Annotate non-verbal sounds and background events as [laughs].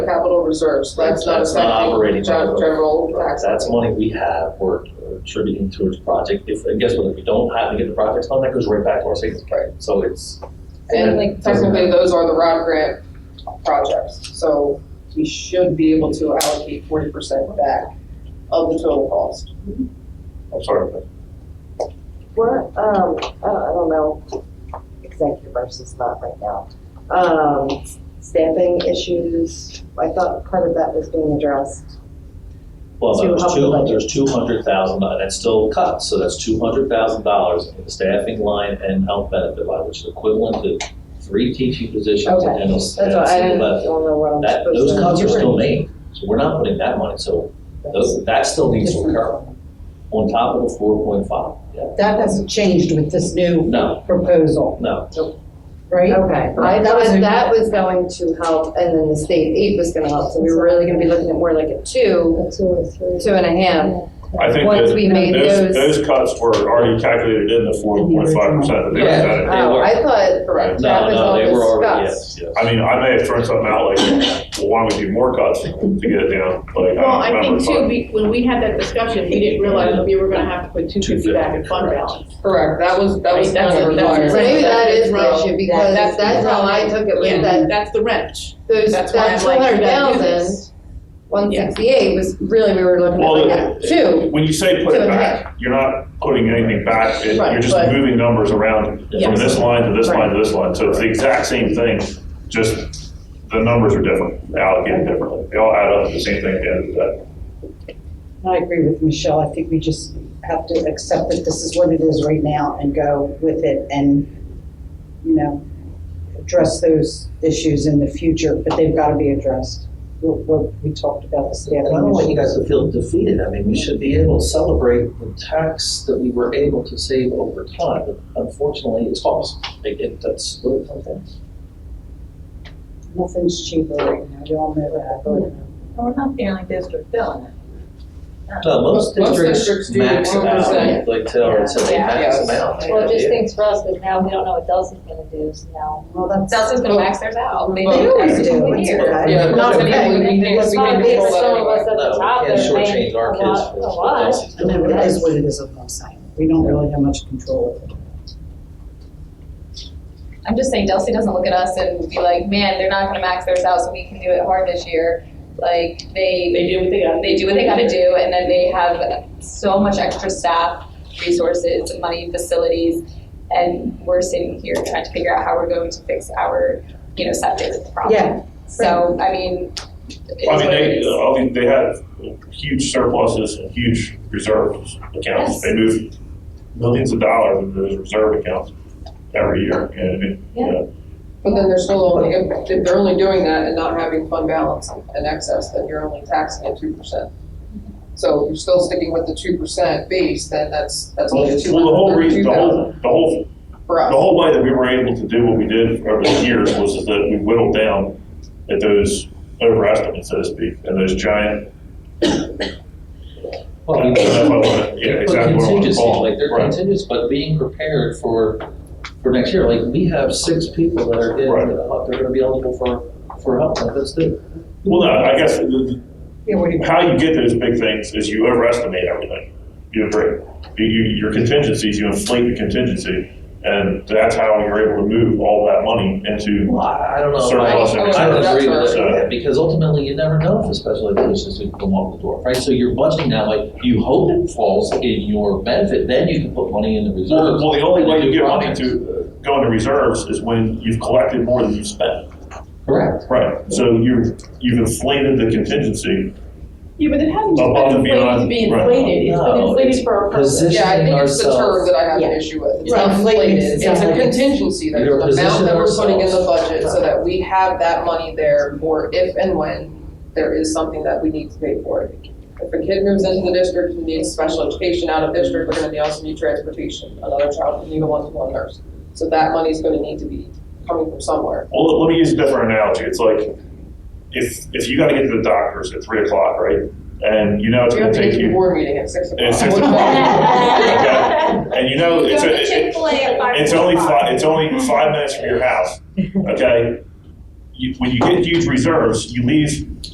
capital reserves, that's not a That's not section, operating gen- budget. general tax. That's money we have, we're attributing towards project, if, and guess what, if we don't have to get the projects done, that goes right back to our savings account. So it's, And like- technically, those are the Rod Grant projects, so we should be able to allocate forty percent back of the total cost. I'm sorry, What, um, I don't, I don't know, executive versus not right now. Um, staffing issues, I thought part of that was being addressed. Well, So there's how two, much? there's two hundred thousand, and that's still cut, so that's two hundred thousand dollars in the staffing line and health benefit line, which is equivalent to three teaching positions and Okay, a, and a That's why single I didn't, left. don't know what I'm That, supposed to. those cuts are do. still made, so we're not putting that money, so those, that still needs to occur on top of the four point five, yeah. That hasn't changed with this new No, proposal, no, right? Okay, I That was thought a- that was going to help, and then the state aid was gonna help, so we were really gonna be looking at more like a two, Two or three. two and a half. I think Once we that made those, those. those cuts were already calculated in the four point five percent that they Yeah. presented. They Oh, were. I thought, no, Correct. no, they were already, already yes, yes. I mean, I may have thrown something out like, well, why don't we do more cuts to get it down, like, Well, I I don't think too, remember. we, when we had that discussion, we didn't realize that we were gonna have to put two fifty back in fund balance. Correct, that was, that was Right, that's- kind of that's- required. so maybe that is the issue, because That's- that's how I took it, was that That's the wrench. those, that That's why I'm two like, you hundred gotta do thousand, this. one sixty-eight was really, we were looking at Well, like that, two. When you say put Two it and a back, you're not putting anything back, it- Right, you're just but- moving numbers around from Yes. this line to this line to this line, so it's the exact same thing, just the numbers are different, allocated differently, they all add up to the same thing at the end of the day. I agree with Michelle, I think we just have to accept that this is what it is right now and go with it and, you know, address those issues in the future, but they've got to be addressed. What, what we talked And about the I staffing. don't want you issue. guys to feel defeated. I mean, we should be able to celebrate the tax that we were able to save over time. But Unfortunately, it's false. It, it, that's what it comes down to. Nothing's cheaper right now, you all know We're not the only district doing it. No, Uh, Most- most most districts districts do max it out, 1%. like Taylor said, they Yeah. max Yes. them out. Well, it just things for us, because now we don't know what Dulce's gonna do, so now. that. Well, that's. Dulce's gonna max theirs out. They Well, do they do. every single It's year. okay. Yeah, Not but we okay. can, we can, That's we not can okay for control that some of us. anyway. At the No, top, we can't it shortchange our makes a kids. lot- with a what lot. else is I going mean, on. it is what it is, is what I'm saying. We don't really have much control over it. I'm just saying Dulce doesn't look at us and be like, man, they're not gonna max theirs out, so we can do it hard this year. Like, they, They do what they gotta. they do what they gotta do, and then they have so much extra staff, resources, money, facilities. And we're sitting here trying to figure out how we're going to fix our, you know, septic problem. Yeah, So, I mean. it's Well, I what mean, it they, is. I mean, they had huge surpluses and huge reserves accounts. Yes. They moved millions of dollars into those reserve accounts every year, you know what I mean? You Yeah. know, But then they're still only, if if they're only doing that and not having fund balance and excess, then you're only taxing at two percent. So if you're still sticking with the two percent base, then that's, that's Well, only two the whole hundred thirty-two reason, the thousand whole, the whole, for the us. whole way that we were able to do what we did over the years was that we whittled down at those overestimates, so to speak, and those giant, [laughs] Well, we- I don't know if I wanna- yeah, But exactly what I want to contingencies, call like them. they're Right. contingents, but being prepared for, for next year, like we have six people that are getting, Right. they're gonna be eligible for, for help benefits too. Well, no, I guess the- the- yeah, what do you? how you get those big things is you overestimate everything. You agree. You, you, your contingencies, you inflate the contingency, and that's how you're able to move all that money into. Well, I I don't know. if I- Surplus and I don't agree with surplus. that, because ultimately you never know if a special ed is going to come off the door, right? So you're budgeting now, like, you hope it falls in your benefit, then you can put money in the Well, reserves. well, the only way you get money Projects. to go into reserves is when you've collected more than you've spent. Correct. Right. So you, you've inflated the contingency. Yeah, but it hasn't just Above been and inflated beyond, to be right. inflated, it's been No, inflated it's for a purpose. position- Yeah, I think it's the term ourselves- that I have an Yeah. issue with. It's Right. not inflated. Inflated, It's a yeah. contingency, there's Either an amount position that we're putting in the ourselves. budget so that we have that money there for if and when there is something that we need to pay for it. If a kid moves into the district and needs special education out of district, we're gonna also need transportation, another child can need a one-to-one nurse. So that money's gonna need to be coming from somewhere. Well, let me use a different analogy. It's like, if, if you gotta get to the doctors at three o'clock, right? And you know it's We have gonna to get take to the you, board meeting at six o'clock. It's six [laughs] [laughs] o'clock. and you know it's, a- it- Chick-fil-A at five It's only o'clock. five, it's only five minutes from your house, okay? you, when you get huge reserves, you leave